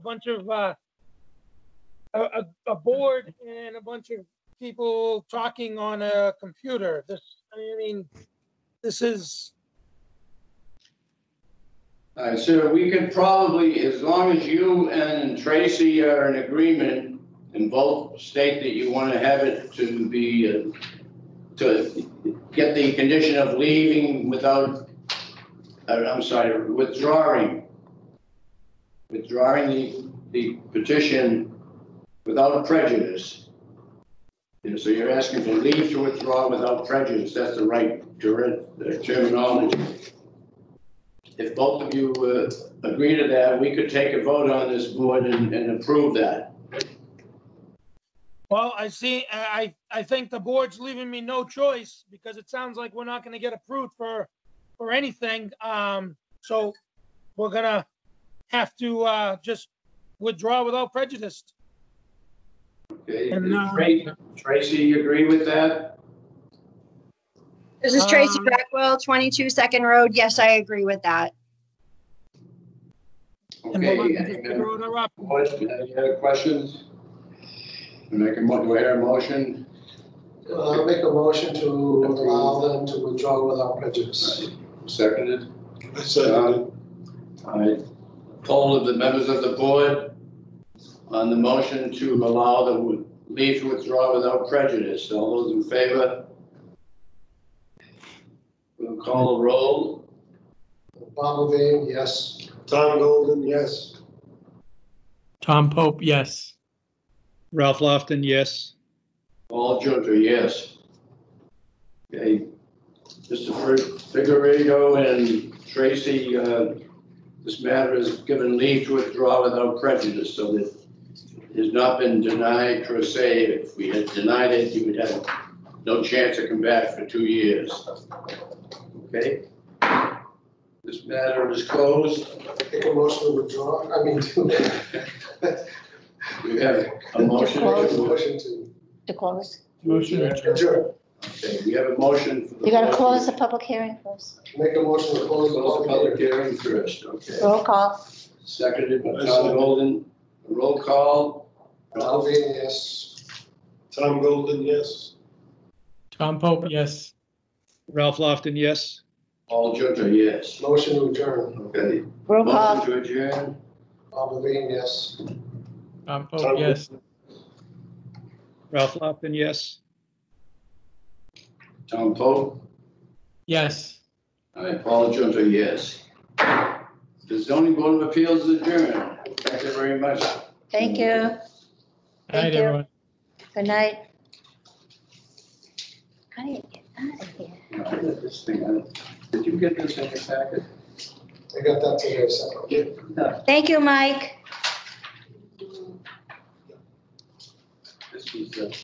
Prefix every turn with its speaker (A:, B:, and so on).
A: bunch of uh, a, a, a board and a bunch of people talking on a computer. This, I mean, this is,
B: All right, sir, we could probably, as long as you and Tracy are in agreement and both state that you want to have it to be, uh, to get the condition of leaving without, uh, I'm sorry, withdrawing, withdrawing the, the petition without prejudice. And so you're asking for leave to withdraw without prejudice, that's the right ter- terminology. If both of you uh, agree to that, we could take a vote on this board and, and approve that.
A: well, I see, I, I I think the board's leaving me no choice because it sounds like we're not gonna get approved for, for anything. Um, so we're gonna have to, uh, just withdraw without prejudice.
B: Okay,
A: And, uh,
B: Tra- Tracy, you agree with that?
C: This is Tracy
A: Um,
C: Blackwell, 22 Second Road. Yes, I agree with that.
A: And we're
B: Okay.
A: gonna just throw it up.
B: Question- Any other questions? Make a, mo- do I hear a motion?
D: Uh, make a motion to allow them to withdraw without prejudice.
B: Seconded? All right. Poll of the members of the board on the motion to allow the leave to withdraw without prejudice. All those in favor? We'll call the roll.
D: Bob Levine, yes. Tom Golden, yes.
E: Tom Pope, yes.
F: Ralph Lofton, yes.
B: All Junta, yes. Okay, Mr. Fer- Figueredo and Tracy, uh, this matter is given leave to withdraw without prejudice, so that it has not been denied per se. If we had denied it, you would have no chance to come back for two years. Okay? This matter is closed.
D: Make a motion to withdraw, I mean, to.
B: We have a motion. to-
D: Motion to.
G: To close?
E: Motion adjourned.
D: Adjourn.
B: Okay, we have a motion. for the
G: You gotta
B: board
G: close the public hearing first.
D: Make a motion to close the
B: Close the public
D: public
B: hearing
D: hearing.
B: first, okay.
G: Roll call.
B: Seconded by
F: I
B: Tom
F: second.
B: Golden. Roll call.
D: Bob Levine, yes.
F: Tom Golden, yes.
E: Tom Pope, yes.
F: Ralph Lofton, yes.
B: All Junta, yes.
D: Motion to adjourn.
B: Okay.
G: Roll
B: Motion
G: call.
B: to adjourn.
D: Bob Levine, yes.
E: Tom Pope, yes.
F: Ralph Lofton, yes.
B: Tom Pope.
E: Yes.
B: All right, Paul Junta, yes. The zoning board of appeals is adjourned. Thank you very much.
G: Thank you.
E: Night,
G: Thank you.
E: everyone.
G: Good night. How do you get out of here?
B: Now, I got this thing out. Did you get this in your packet?
D: I got that today, separately.
G: Thank you, Mike.
B: This was, uh,